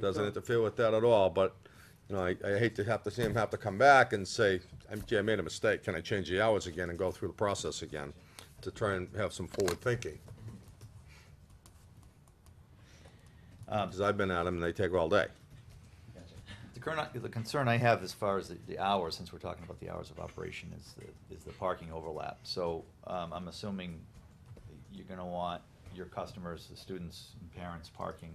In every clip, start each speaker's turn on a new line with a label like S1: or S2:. S1: doesn't interfere with that at all, but, you know, I, I hate to have to see him have to come back and say, "I'm- gee, I made a mistake, can I change the hours again and go through the process again? To try and have some forward thinking. Because Uh, I've been at them and they take all day.
S2: The current, the concern I have as far as the- the hours, since we're talking about the hours of operation, is the, is the parking overlap. So, um, I'm assuming you're gonna want your customers, the students and parents parking,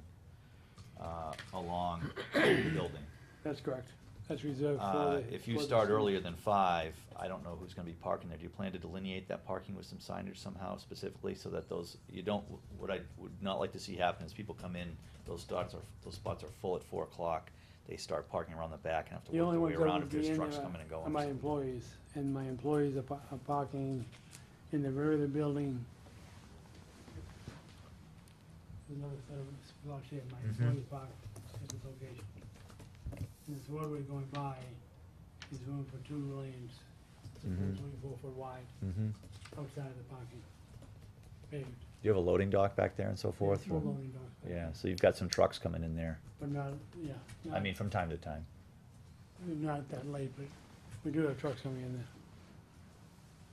S2: uh, along the building.
S3: That's correct. That's reserved
S2: Uh,
S3: for the.
S2: if
S3: for
S2: you
S3: the
S2: start
S3: student.
S2: earlier than five, I don't know who's gonna be parking there. Do you plan to delineate that parking with some signage somehow specifically so that those, you don't, what I would not like to see happen is people come in, those spots are, those spots are full at four o'clock. They start parking around the back and have to
S3: The
S2: work
S3: only
S2: their way
S3: ones that
S2: around
S3: would
S2: if
S3: be
S2: there's
S3: in
S2: trucks
S3: there
S2: coming and going.
S3: are my employees, and my employees are pa- are parking in the rear of the building. There's another set of blocks here, my
S2: Mhm.
S3: employees park at this location. And This roadway going by is room for two lanes, it's
S2: Mhm.
S3: twenty-four foot wide
S2: Mm-hmm.
S3: outside of the parking. Paved.
S2: Do you have a loading dock back there and so forth?
S3: Full
S2: or-
S3: loading dock,
S2: Yeah, so you've got some trucks coming in there,
S3: But not, yeah.
S2: I
S3: not-
S2: mean, from time to time.
S3: Not that late, but we do have trucks coming in there.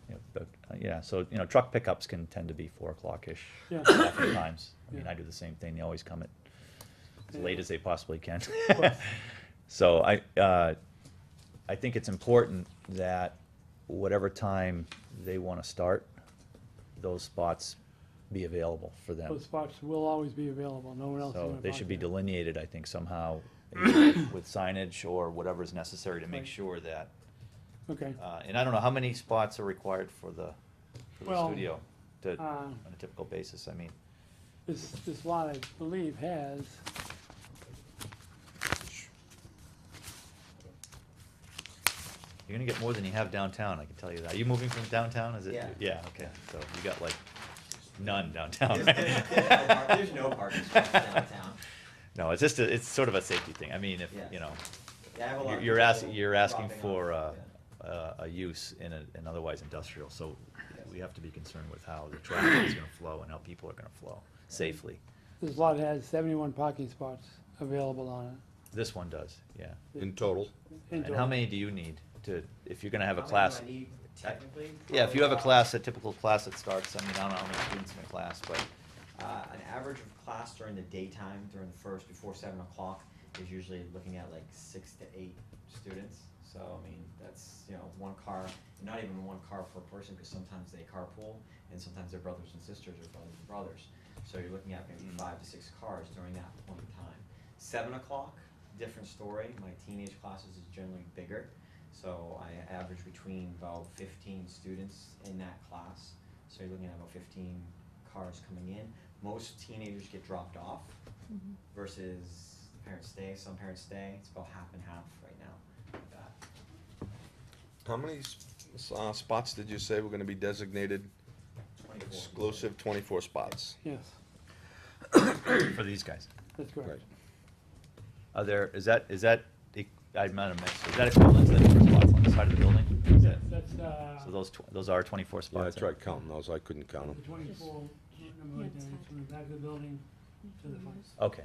S2: you know, But, uh, yeah, so, you know, truck pickups can tend to be four o'clock-ish
S3: Yeah.
S2: oftentimes. I mean,
S3: Yeah.
S2: I do the same thing, they always come at as
S3: Yeah.
S2: late as they possibly can.
S3: course.
S2: So I, uh, I think it's important that whatever time they wanna start, those spots be available for them.
S3: Those spots will always be available, no one else is gonna
S2: So
S3: park
S2: they should be
S3: there.
S2: delineated, I think, somehow either with signage or whatever is necessary to make
S3: Right.
S2: sure that,
S3: Okay,
S2: uh, and I don't know, how many spots are required for the, for the
S3: Well,
S2: studio? To,
S3: uh,
S2: on a typical basis, I mean,
S3: this, this lot, I believe, has,
S2: you're gonna get more than you have downtown, I can tell you that. Are you moving from downtown, is it?
S4: Yeah.
S2: okay, so you got like none downtown.
S4: There's, there's, there's no park, there's no parking spots downtown.
S2: No, it's just, a- it's sort of a safety thing, I mean, if,
S4: Yes.
S2: you know,
S4: Yeah, I have a lot
S2: you're-
S4: of
S2: you're
S4: people
S2: asking, you're asking
S4: dropping off,
S2: for uh,
S4: yeah.
S2: a, a use in a- an otherwise industrial, so
S4: Yes.
S2: we have to be concerned with how the traffic is gonna flow and how people are gonna flow safely.
S3: this lot has seventy-one parking spots available on
S2: This one does, yeah.
S1: In total,
S3: it. in
S2: And how
S3: total.
S2: many do you need to, if you're gonna have a
S4: How many do
S2: class?
S4: I need Technically.
S2: Yeah, if you have a
S4: Uh,
S2: class, a typical class that starts, I mean, I don't know how many students in a class, but
S4: Uh, an average of class during the daytime, during the first, before seven o'clock, is usually looking at like six to eight students. So, I mean, that's, you know, one car, not even one car per person, because sometimes they carpool, and sometimes they're brothers and sisters or brothers and brothers. So you're looking at maybe
S2: Mm.
S4: five to six cars during that point in time. Seven o'clock, different story. My teenage classes is generally bigger. So I average between about fifteen students in that class. So you're looking at about fifteen cars coming in. Most teenagers get dropped off versus parents stay. Some parents stay. It's about half and half right now. with that.
S1: how many s- s- uh, spots did you say were gonna be designated
S4: 24.
S1: exclusive twenty-four spots?
S3: Yes,
S2: for these guys.
S3: that's
S1: Right.
S3: correct.
S2: Are there, is that, is that, e- I might have mixed, is that equivalent to the number of spots on the side of the building? Is
S3: Yes,
S2: that-
S3: That's, uh.
S2: So those, tw- those are twenty-four
S1: Yeah, I
S2: spots?
S1: tried counting those, I couldn't count
S3: The
S1: them.
S3: twenty-four, number right there, it's from the back of the building to the front.
S2: Okay,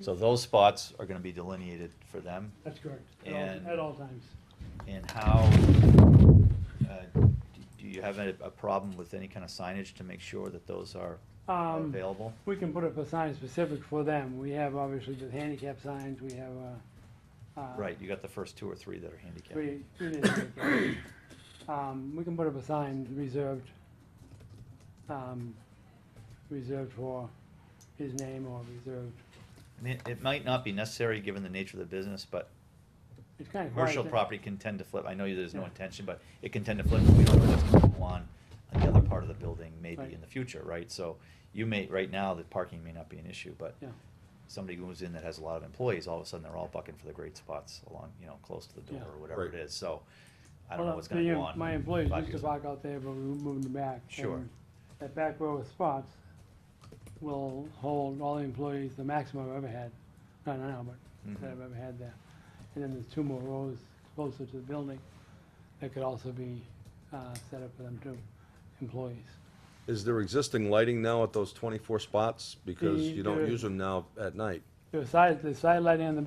S2: so those spots are gonna be delineated for them,
S3: That's correct, at all,
S2: And-
S3: at all times.
S2: and how, uh, do- do you have a, a problem with any kind of signage to make sure that those are are
S3: Um,
S2: available?
S3: We can put up a sign specific for them. We have obviously the handicap signs, we have, uh. uh,
S2: Right, you got the first two or three that are handicapped.
S3: We, we didn't make it. Um, we can put up a sign reserved, um, reserved for his name or reserved,
S2: I mean, it might not be necessary, given the nature of the business, but
S3: it's kind of.
S2: Commercial property can tend to flip, I know there's no
S3: Yeah.
S2: intention, but it can tend to flip, we don't know what's gonna go on on the other part of the building, maybe
S3: Right.
S2: in the future, right? So you may, right now, the parking may not be an issue, but
S3: Yeah,
S2: somebody moves in that has a lot of employees, all of a sudden, they're all bucking for the great spots along, you know, close to the door,
S3: Yeah.
S2: or whatever it
S1: Right.
S2: is, so I don't know
S3: Well,
S2: what's gonna
S3: the-
S2: go on.
S3: My employees
S2: five
S3: used to
S2: years.
S3: park out there, but we moved them back.
S2: Sure.
S3: and That back row of spots will hold all the employees, the maximum I've ever had, not now, but that
S2: Mhm.
S3: I've ever had there. And then there's two more rows closer to the building that could also be, uh, set up for them too, employees.
S1: Is there existing lighting now at those twenty-four spots? Because
S3: The-
S1: you don't
S3: there-
S1: use them now at night.
S3: The side, the side lighting on the